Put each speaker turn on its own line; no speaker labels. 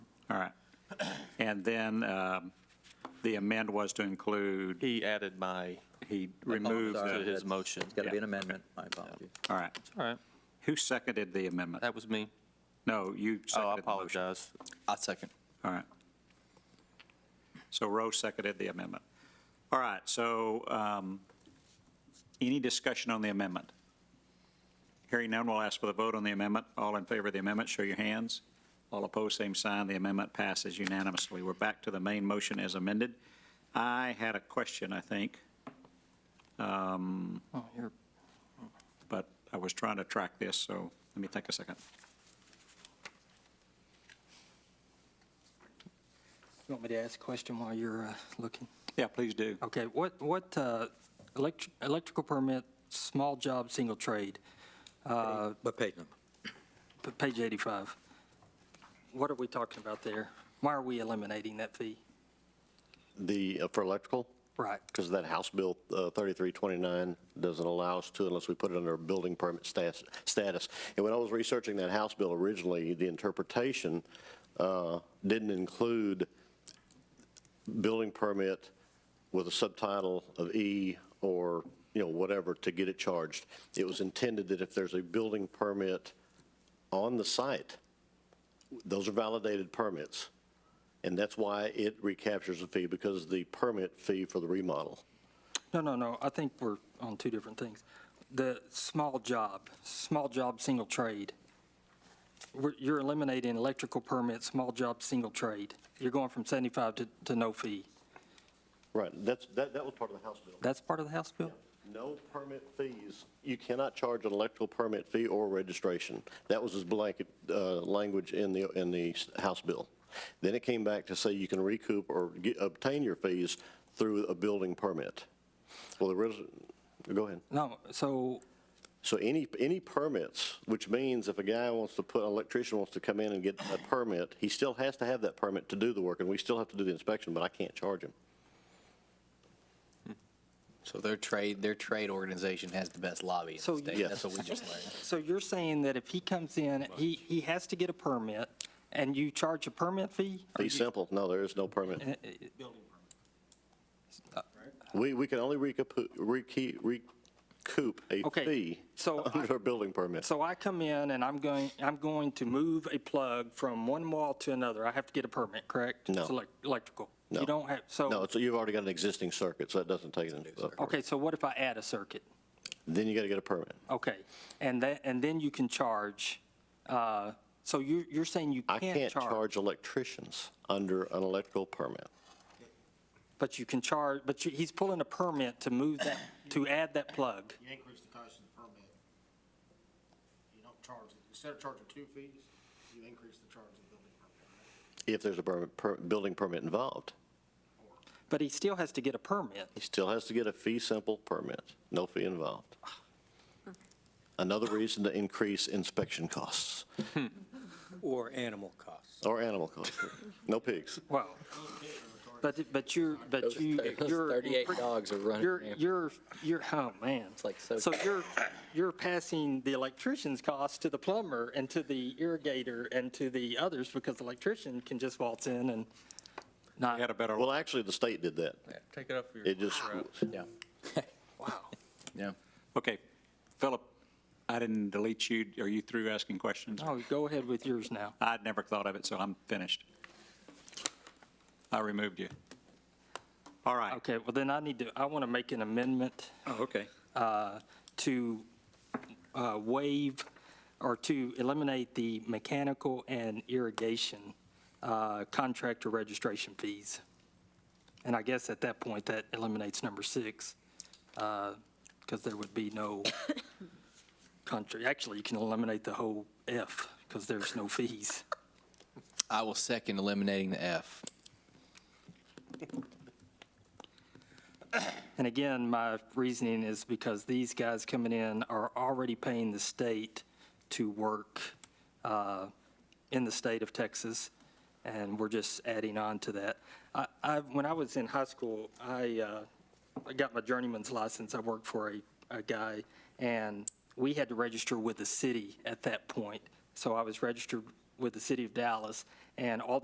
All right. And then um, the amend was to include,
He added my,
he
moved
removed,
to
the-
his motion.
It's got to be
Yeah,
an amendment, my apology.
all right.
All right,
Who seconded the amendment?
that was me.
No, you
Oh,
seconded
I
the motion.
apologize.
I second.
All right. So Rowe seconded the amendment. All right, so um, any discussion on the amendment? Hearing none, we'll ask for the vote on the amendment. All in favor of the amendment, show your hands. All opposed, same sign. The amendment passes unanimously. We're back to the main motion as amended. I had a question, I think,
Oh, you're,
but I was trying to track this, so let me take a second.
You want me to ask a question while you're uh, looking?
Yeah, please do.
Okay, what, what, uh, elect- electrical permit, small job, single trade, uh,
What page number?
p- page 85. What are we talking about there? Why are we eliminating that fee?
The, uh, for electrical,
Right,
because that House Bill uh, 3329 doesn't allow us to unless we put it under a building permit stas- status. And when I was researching that House bill originally, the interpretation uh, didn't include building permit with a subtitle of E or, you know, whatever to get it charged. It was intended that if there's a building permit on the site, those are validated permits. And that's why it recaptures the fee, because the permit fee for the remodel.
no, no, no, I think we're on two different things. The small job, small job, single trade, We're- you're eliminating electrical permit, small job, single trade. You're going from 75 to, to no fee.
Right, that's, that, that was part of the House bill.
That's part of the House bill?
No permit fees. You cannot charge an electrical permit fee or registration. That was his blanket, uh, language in the, in the s- House bill. Then it came back to say you can recoup or get, obtain your fees through a building permit. Well, the res, go ahead.
No, so
So any, any permits, which means if a guy wants to put, an electrician wants to come in and get a permit, he still has to have that permit to do the work, and we still have to do the inspection, but I can't charge him.
So their trade, their trade organization has the best lobby in
So
the
you-
state.
Yes.
That's what we just learned.
So you're saying that if he comes in, he, he has to get a permit, and you charge a permit fee? Or
Be
you-
simple, no, there is no permit. Uh,
eh, eh,
We, we can only recoup, recoup, recoup a
Okay,
fee
so I-
under a building permit.
So I come in and I'm going, I'm going to move a plug from one wall to another, I have to get a permit, correct?
No.
It's elec- Electrical?
No.
You don't have,
No,
so,
so you've already got an existing circuit, so that doesn't take it into account.
okay, so what if I add a circuit?
Then you got to get a permit.
Okay, and that, and then you can charge, uh, so you're, you're saying you
I
can't
can't
charge?
charge electricians under an electrical permit.
But you can charge, but you- he's pulling a permit to move that, to add that plug.
you increase the cost of the permit. You don't charge, instead of charging two fees, you increase the charge of the building permit.
If there's a permit, per, building permit involved,
But he still has to get a permit.
He still has to get a fee simple permit, no fee involved. Another reason to increase inspection costs
Or animal costs.
or animal costs. No pigs.
Well, but, but you're, but you, you're.
dogs are
You're, you're, you're, oh, man. It's
like so-
So you're, you're passing the electrician's cost to the plumber and to the irrigator and to the others because the electrician can just waltz in and
I had
not,
a better,
Well, actually, the state did that.
take it up for your.
It just,
Yeah,
wow.
yeah.
okay, Philip, I didn't delete you. Are you through asking questions?
Oh, go ahead with yours now.
I'd never thought of it, so I'm finished. I removed you. All right.
Okay, well then I need to, I want to make an amendment
Oh, okay.
uh, to uh, waive or to eliminate the mechanical and irrigation uh, contractor registration fees. And I guess at that point, that eliminates number six, because there would be no country, actually, you can eliminate the whole F, because there's no fees.
I will second eliminating the F.
And again, my reasoning is because these guys coming in are already paying the state to work uh, in the state of Texas, and we're just adding on to that. I- I, when I was in high school, I, uh, I got my journeyman's license. I worked for a, a guy, and we had to register with the city at that point. So I was registered with the city of Dallas, and all